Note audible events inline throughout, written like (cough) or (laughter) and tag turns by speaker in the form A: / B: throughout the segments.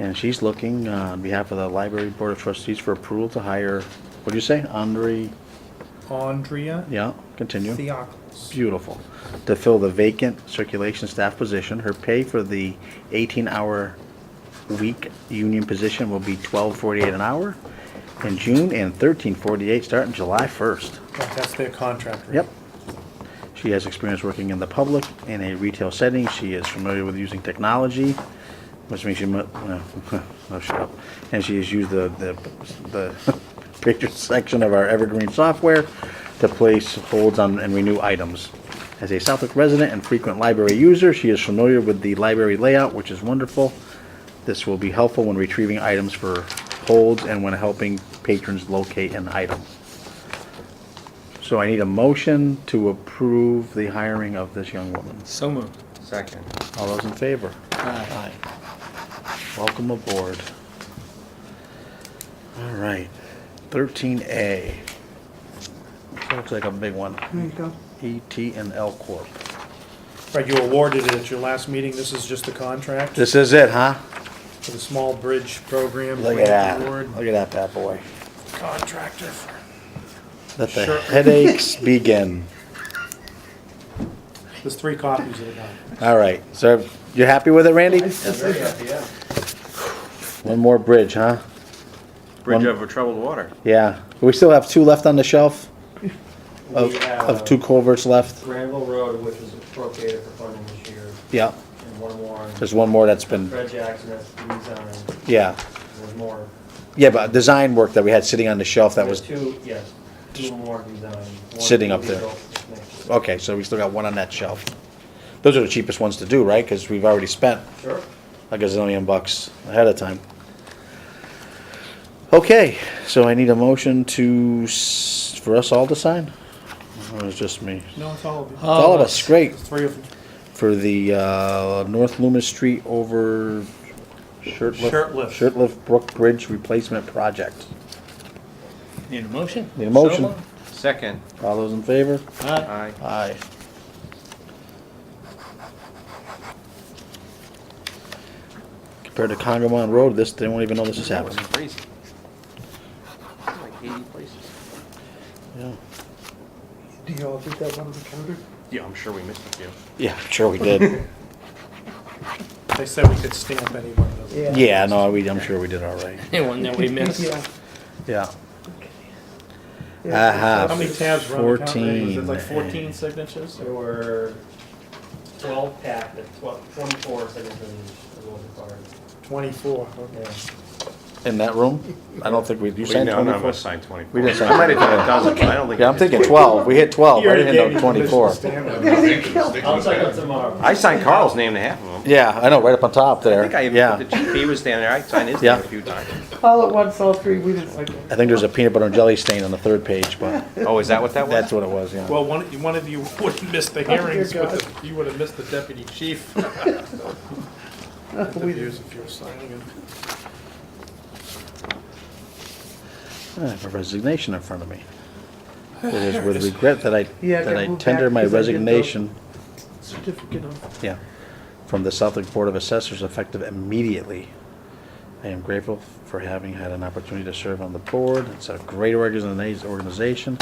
A: And she's looking uh, on behalf of the Library Board of Trustees for approval to hire, what do you say, Andre,
B: Andrea
A: yeah, continue.
B: Theophilus.
A: Beautiful. To fill the vacant circulation staff position, her pay for the 18-hour week union position will be $12.48 an hour in June and $13.48 starting July 1st.
B: That's their contract rate.
A: Yep. She has experience working in the public in a retail setting. She is familiar with using technology, which means she mu- (laughs) no, no, shut up. And she has used the, the, the (laughs) picture section of our Evergreen software to place holds on and renew items. As a Southwick resident and frequent library user, she is familiar with the library layout, which is wonderful. This will be helpful when retrieving items for holds and when helping patrons locate an item. So I need a motion to approve the hiring of this young woman.
C: So moved.
D: Second.
A: All those in favor?
C: Aye.
A: Welcome aboard. All right, thirteen A. Looks like a big one. There you go. ET and L Corp.
B: Right, you awarded it at your last meeting. This is just the contract
A: This is it, huh?
B: for the small bridge program.
A: Look at that,
B: Award.
A: look at that bad boy.
B: Contractor. for-
A: Let the (laughs)
B: Sure.
A: headaches begin.
B: There's three copies of the contract.
A: All right, so you happy with it, Randy?
D: yeah.
A: One more bridge, huh?
D: Bridge
A: One-
D: over troubled water.
A: Yeah. We still have two left on the shelf of, of
E: We have
A: two culverts left?
E: Granville Road, which is appropriated for funding this year,
A: Yeah.
E: and one more, on
A: There's one more that's been,
E: Fred Jackson, that's the design,
A: yeah.
E: there's more.
A: Yeah, but design work that we had sitting on the shelf that was,
E: There's two, yes, two more design. One
A: Sitting up
E: will be
A: there.
E: built next year.
A: okay, so we still got one on that shelf. Those are the cheapest ones to do, right? Because we've already spent
E: Sure.
A: a gazillion bucks ahead of time. Okay, so I need a motion to, s- for us all to sign? Or it's just me?
B: No, it's all of you.
C: Huh.
A: All of us, great.
B: There's three of them.
A: For the uh, North Loomis Street over Shirtlift.
B: Shirtlift.
A: Shirtlift Brook Bridge Replacement Project.
C: Need a motion?
A: Need a motion.
C: So moved.
D: Second.
A: All those in favor?
C: Aye.
D: Aye.
A: Aye. Compared to Congamon Road, this, they won't even know this is
D: That was
A: happening.
D: crazy. Like eighty places.
A: Yeah.
B: Do you all think that one was counted?
D: Yeah, I'm sure we missed a few.
A: Yeah, sure we did.
B: They said we could stamp any one of
A: (laughs)
B: those.
A: Yeah, no, we, I'm sure we did all right.
C: Anyone that we missed?
A: (laughs) Yeah. Aha.
B: How many tabs were on the contract? Was it
A: 14.
B: like fourteen signatures?
E: There were twelve pack, uh, twelve, twenty-four signatures is what required,
B: Twenty-four. okay.
E: yeah.
A: In that room? I don't think we, you
D: We-
A: signed
D: no, none of
A: 24?
D: us signed twenty-four.
A: We didn't sign
D: I might have done a dozen, but I don't think.
A: Yeah,
D: I
A: I'm
D: did
A: thinking
D: 24.
A: 12. We hit 12. I
B: He already
A: didn't
B: gave
A: know
B: you permission to
A: 24.
B: stamp it.
E: I'll check out tomorrow.
D: I signed Carl's name to half of them.
A: Yeah, I know, right up on top there.
D: I think I
A: Yeah.
D: even, put the GP was down there, I signed his name
A: Yeah.
D: a few times.
F: All at once, all three, we didn't like it.
A: I think there's a peanut butter and jelly stain on the third page, but
D: Oh, is that what that
A: that's
D: was?
A: what it was, yeah.
B: Well, one, one of you (laughs) would have missed the
F: dear
B: hearings, but
F: God.
B: the- you would have missed the deputy chief. Interviews if you were signing it.
A: I have a resignation in front of me. It is (laughs) with regret that I,
F: Yeah,
A: that
F: I
A: I
F: moved
A: tender
F: back
A: my
F: because I did the-
A: resignation,
F: Certificate of,
A: yeah, from the Southwick Board of Assessors effective immediately. I am grateful for having had an opportunity to serve on the board. It's a great organiza- organization,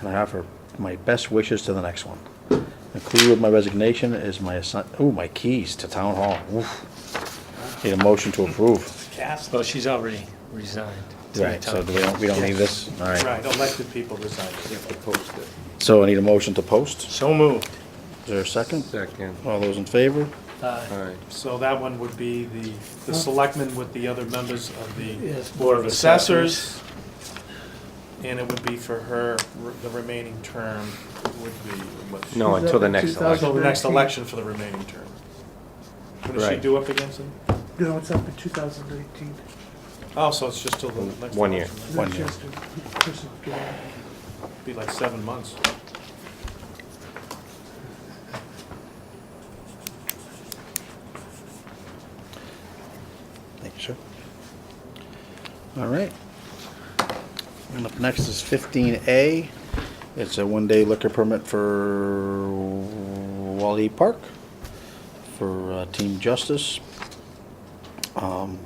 A: and I offer my best wishes to the next one. Included with my resignation is my assign, ooh, my keys to town hall. Oof. Need a motion to approve.
B: Cast.
C: Well, she's already resigned. It's
A: Right, so do we don't, we don't need this? All right.
B: Right, elected people resign.
A: So I need a motion to post.
C: So moved.
A: Is there a second?
D: Second.
A: All those in favor?
F: Uh,
C: Aye.
D: All right.
B: So that one would be the, the selectmen with the other members of the
F: Yes,
B: Board of Assessors. And it would be for her, re- the remaining term would be what? she-
D: No, until the next
F: 2000.
D: election.
B: Until Oh, the next election for the remaining term. What does she
D: Right.
B: do up against it?
F: you know, it's up in 2019.
B: Oh, so it's just till the next.
D: One year.
B: election,
A: One
F: That's
A: year.
F: just a personal feeling.
B: right? Be like seven months.
A: Thank you, sir. All right. And up next is fifteen A. It's a one-day liquor permit for Wally Park for uh, Team Justice. Um,